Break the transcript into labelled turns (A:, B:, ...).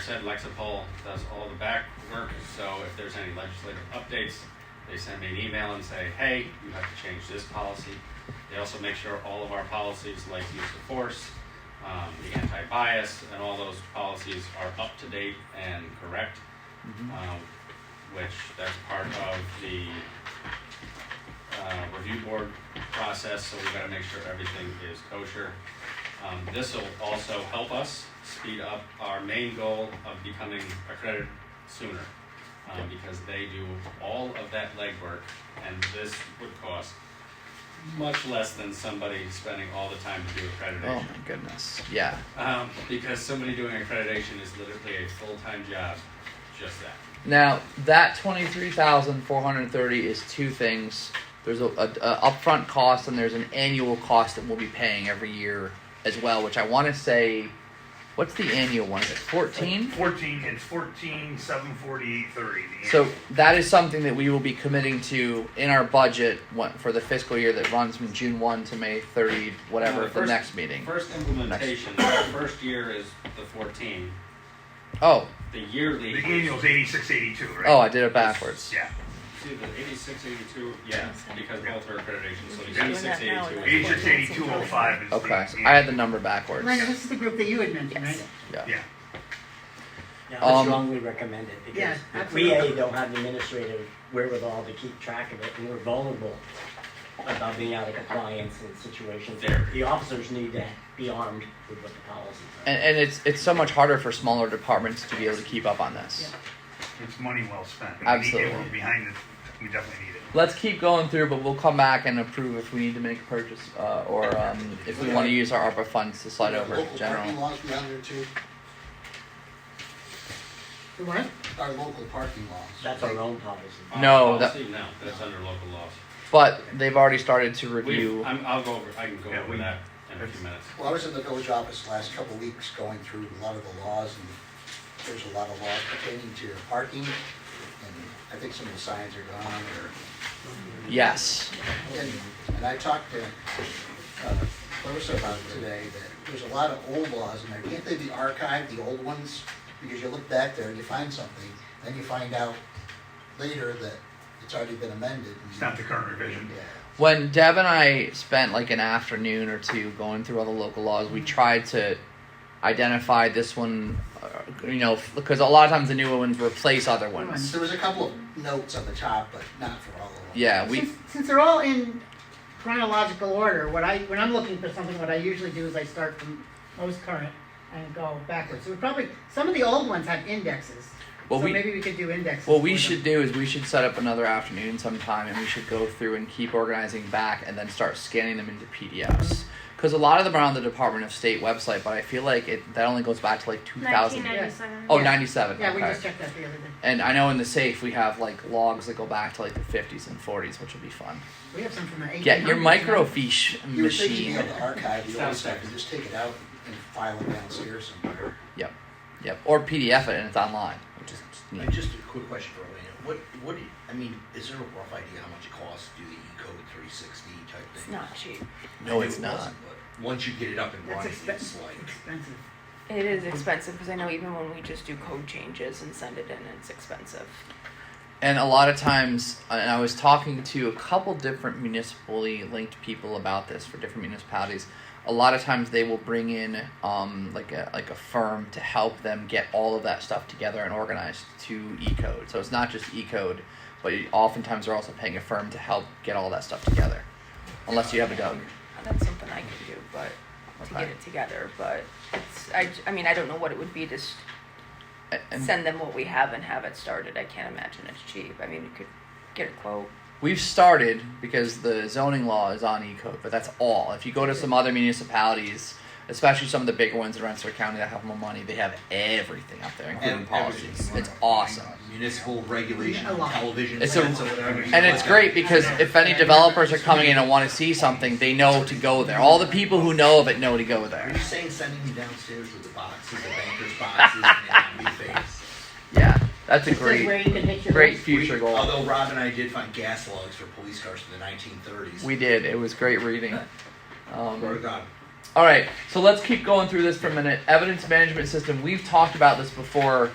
A: said Lexapol does all the back work, so if there's any legislative updates, they send me an email and say, hey, you have to change this policy. They also make sure all of our policies, like use of force, um, the anti-bias, and all those policies are up to date and correct, um, which that's part of the uh, review board process, so we gotta make sure everything is kosher. Um, this will also help us speed up our main goal of becoming accredited sooner, um, because they do all of that legwork, and this would cost much less than somebody spending all the time to do
B: Oh
A: accreditation.
B: my goodness. Yeah.
A: Um, because somebody doing accreditation is literally a full-time job, just that.
B: Now that twenty three thousand four hundred thirty is two things. There's a, a, a upfront cost and there's an annual cost that we'll be paying every year as well. Which I want to say, what's the annual one? Is it fourteen?
C: Fourteen, it's fourteen, seven forty-eight, thirty.
B: So that is something that we will be committing to in our budget what- for the fiscal year that runs from June one to May thirty, whatever,
A: No, the
B: the
A: first-
B: next meeting.
A: First implementation, the first year is the fourteen,
B: Oh,
A: the yearly.
C: The annual's eighty-six, eighty-two, right?
B: oh, I did it backwards.
C: Yeah,
A: See, the eighty-six, eighty-two, yeah, because both are accreditation, so the
C: Yeah.
A: eighty-six, eighty-two.
C: eighty-six, eighty-two, oh five is the.
B: Okay,
C: the-
B: I had the number backwards.
D: Miranda, this is the group that you had mentioned, right?
E: Yes.
C: Yeah,
E: Yeah, I would
B: Um,
E: strongly recommend it
D: Yeah,
E: because we
D: absolutely.
E: A don't have the administrative wherewithal to keep track of it and we're vulnerable about being out of compliance in situations.
A: There.
E: The officers need to be armed with what the policies are.
B: And, and it's it's so much harder for smaller departments to be able to keep up on this.
D: Yeah.
C: it's money well spent. We need it.
B: Absolutely.
C: We're behind it, we definitely need it.
B: Let's keep going through, but we'll come back and approve if we need to make a purchase uh, or um, if we want to use our ARPA funds to slide over
F: Local parking
B: general.
F: laws be on there too,
D: The what?
F: our local parking laws.
E: That's our own policy.
B: No, that-
A: Policy? No, that's under local laws.
B: But they've already started to
A: We,
B: review.
A: I'm, I'll go over, I can go
C: Yeah,
A: over
C: we-
A: that in a few minutes.
F: Well, I was in the village office last couple of weeks going through a lot of the laws and there's a lot of laws pertaining to parking. And I think some of the signs are gone or,
B: Yes.
F: and, and I talked to uh, Clarissa about it today, that there's a lot of old laws in there. Can't they be archived, the old ones? Because you look back there and you find something, then you find out later that it's already been amended. and-
C: It's not the current revision.
F: Yeah.
B: When Deb and I spent like an afternoon or two going through all the local laws, we tried to identify this one, uh, you know, because a lot of times the newer ones replace other ones.
F: There was a couple of notes on the top, but not for all of them.
B: Yeah, we.
D: Since, since they're all in chronological order, what I, when I'm looking for something, what I usually do is I start from most current and go backwards. So we probably, some of the old ones have indexes.
B: Well,
D: So
B: we-
D: maybe we could do indexes.
B: What we
D: for them.
B: should do is we should set up another afternoon sometime and we should go through and keep organizing back and then start scanning them into PDFs. Because a lot of them are on the Department of State website, but I feel like it that only goes back to like 2000.
D: 1997.
B: Oh,
D: Yeah.
B: 97.
D: Yeah,
B: okay.
D: we just checked that the other day.
B: and I know in the safe we have like logs that go back to like the 50s and 40s, which will be fun.
D: We have some from the eighteen
B: Get
D: hundreds.
B: your microfiche
F: You would think you'd be
B: machine.
F: able to archive the old
A: Sounds
F: stuff
A: nice.
F: and just take it out and file it downstairs somewhere.
B: Yep. Yep. Or PDF it and it's online, which is
G: Uh,
B: neat.
G: Just a quick question for Elena. What, what, do you- I mean, is there a rough idea how much it costs to do the E-code three sixty type
E: It's
G: thing?
E: not cheap.
B: No,
G: I knew
B: it's
G: it
B: not.
G: wasn't, but Once you get it up and
D: That's
G: running, it's
D: expensive.
G: like,
D: Expensive.
H: It is expensive because I know even when we just do code changes and send it in, it's expensive.
B: And a lot of times, uh, and I was talking to a couple different municipally linked people about this for different municipalities. A lot of times they will bring in um, like a like a firm to help them get all of that stuff together and organized to E-code. So it's not just E-code, but you- oftentimes they're also paying a firm to help get all that stuff together. Unless you have a dog.
H: That's something I can do, but to get
B: Okay.
H: it together. But it's I, j- I mean I don't know what it would be to s
B: A- And
H: send them what we have and have it started. I can't imagine it's cheap. I mean you could get a quote.
B: We've started because the zoning law is on E-code, but that's all. If you go to some other municipalities, especially some of the bigger ones in Rensselaer County that have more money, they have everything up there, including
G: and
B: policies.
G: everything.
B: It's awesome.
G: Municipal regulation,
D: A lot.
G: television.
B: It's a-
G: sets or whatever.
B: And it's great because if any developers are coming in and want to see something, they know to go there. All the people who know of it know to go
G: Are
B: there.
G: you saying sending me downstairs with the boxes, the banker's boxes, and the face?
B: Yeah, that's a
D: It says where
B: great,
D: you can hit your.
B: great future goal.
G: Although Rob and I did find gas logs for police cars from the nineteen thirties.
B: We did. It was great reading.
G: Swear to
B: Um,
G: God.
B: All right, so let's keep going through this for a minute. Evidence management system. We've talked about this before.